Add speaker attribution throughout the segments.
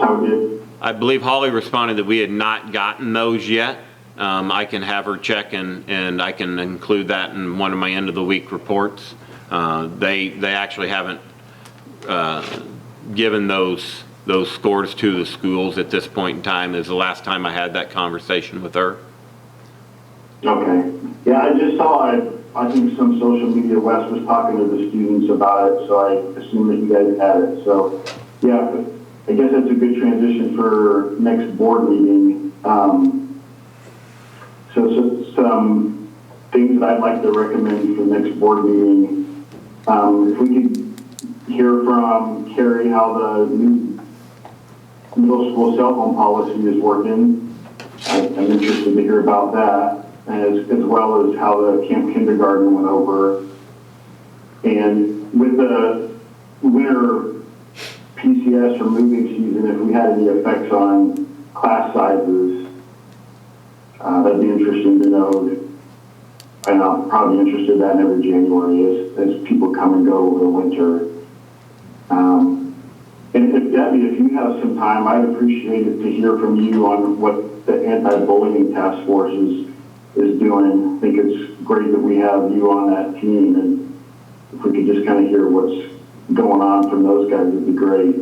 Speaker 1: how we did.
Speaker 2: I believe Holly responded that we had not gotten those yet. Um, I can have her check and, and I can include that in one of my end of the week reports. Uh, They, they actually haven't uh, given those, those scores to the schools at this point in time. Is the last time I had that conversation with her.
Speaker 1: Okay. Yeah, I just saw it. I think some social media, Wes was talking to the students about it, so I assume that you guys had it. So, yeah, I guess that's a good transition for next board meeting. Um, so, so some things that I'd like to recommend for next board meeting. Um, if we could hear from Carrie how the new middle school cell phone policy is working. I- I'm interested to hear about that, as, as well as how the camp kindergarten went over. And with the winter PCS or moving season, if we had any effects on class sizes, uh, that'd be interesting to know. And I'm probably interested in that in every January as, as people come and go over the winter. Um, and if Debbie, if you have some time, I'd appreciate it to hear from you on what the anti-bullying task force is, is doing. I think it's great that we have you on that team and if we could just kind of hear what's going on from those guys, it'd be great.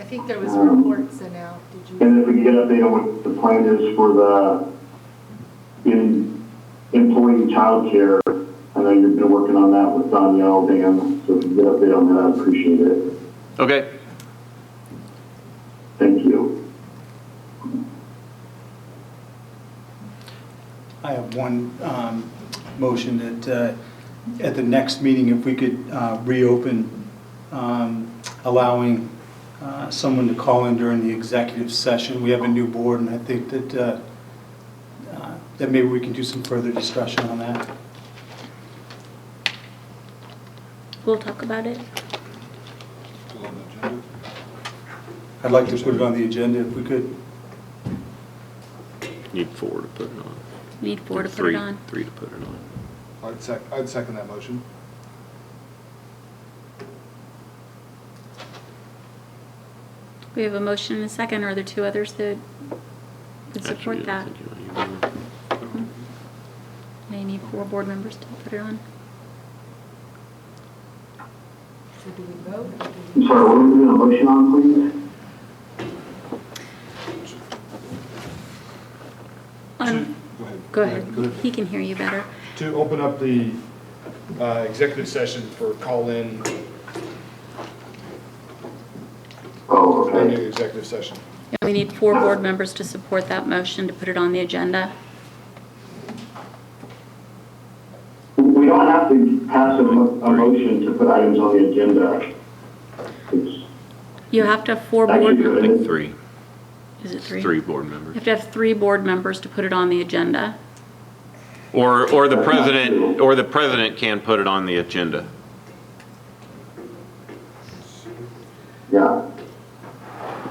Speaker 3: I think there was a
Speaker 1: Um,
Speaker 3: report sent out, did you?
Speaker 1: And if we could get an update on what the plan is for the in, employee childcare. I know you've been working on that with Danielle, Dan, so if you could get an update on that, I'd appreciate it.
Speaker 2: Okay,
Speaker 1: Thank you.
Speaker 4: I have one um, motion that uh, at the next meeting, if we could uh, reopen um, allowing uh, someone to call in during the executive session. We have a new board, and I think that, uh, uh, that maybe we can do some further discussion on that.
Speaker 5: We'll talk about it.
Speaker 4: I'd like to put it on the agenda if we could.
Speaker 2: need four to put it on.
Speaker 5: Need four to put
Speaker 2: Three-
Speaker 5: it on.
Speaker 2: Three to put it on.
Speaker 6: I'd sec, I'd second that motion.
Speaker 5: We have a motion and a second. Are there two others that would
Speaker 2: Actually,
Speaker 5: support
Speaker 2: I
Speaker 5: that?
Speaker 2: don't think you want to do
Speaker 5: They need four board members to put it on.
Speaker 3: So do we vote? or do
Speaker 1: I'm
Speaker 3: we-
Speaker 1: sorry, what are we doing a motion on, please?
Speaker 5: Um,
Speaker 6: To- Go ahead.
Speaker 5: Go ahead.
Speaker 6: ahead.
Speaker 5: He can hear you better.
Speaker 6: To open up the uh, executive session for call-in,
Speaker 1: Oh,
Speaker 6: our new
Speaker 1: okay.
Speaker 6: executive session.
Speaker 5: And We need four board members to support that motion to put it on the agenda.
Speaker 1: We don't have to pass a, mo- a motion to put items on the agenda. It's
Speaker 5: You have to have four
Speaker 1: actually
Speaker 5: board,
Speaker 2: I
Speaker 1: good.
Speaker 2: think three,
Speaker 5: is it three?
Speaker 2: three board
Speaker 5: You
Speaker 2: members.
Speaker 5: have to have three board members to put it on the agenda.
Speaker 2: Or, or the president, or the president can put it on the agenda.
Speaker 1: Yeah.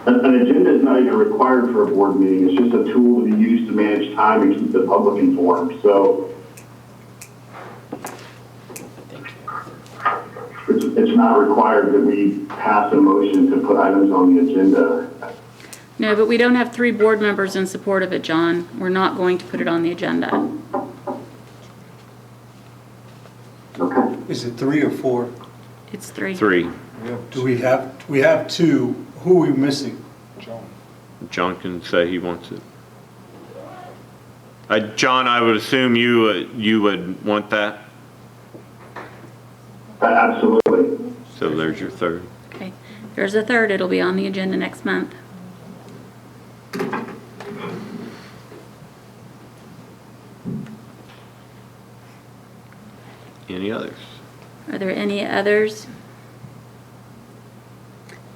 Speaker 1: An, an agenda is not even required for a board meeting. It's just a tool to be used to manage time and keep the public informed, so. It's, it's not required that we pass a motion to put items on the agenda.
Speaker 5: No, but we don't have three board members in support of it, John. We're not going to put it on the agenda.
Speaker 1: Okay.
Speaker 4: Is it three or four?
Speaker 5: It's three.
Speaker 2: Three.
Speaker 6: We have
Speaker 4: Do we have, we have two. Who are we missing?
Speaker 6: John.
Speaker 2: John can say he wants it. Uh, John, I would assume you, uh, you would want that,
Speaker 1: Absolutely.
Speaker 2: so there's your third.
Speaker 5: Okay. There's a third. It'll be on the agenda next month.
Speaker 2: Any others?
Speaker 5: Are there any others?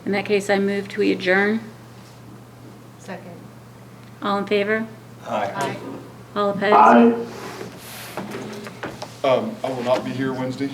Speaker 5: In that case, I move to adjourn.
Speaker 3: Second.
Speaker 5: All in favor?
Speaker 4: Aye.
Speaker 3: Aye.
Speaker 5: All opposed?
Speaker 1: Aye.
Speaker 6: Um, I will not be here Wednesday.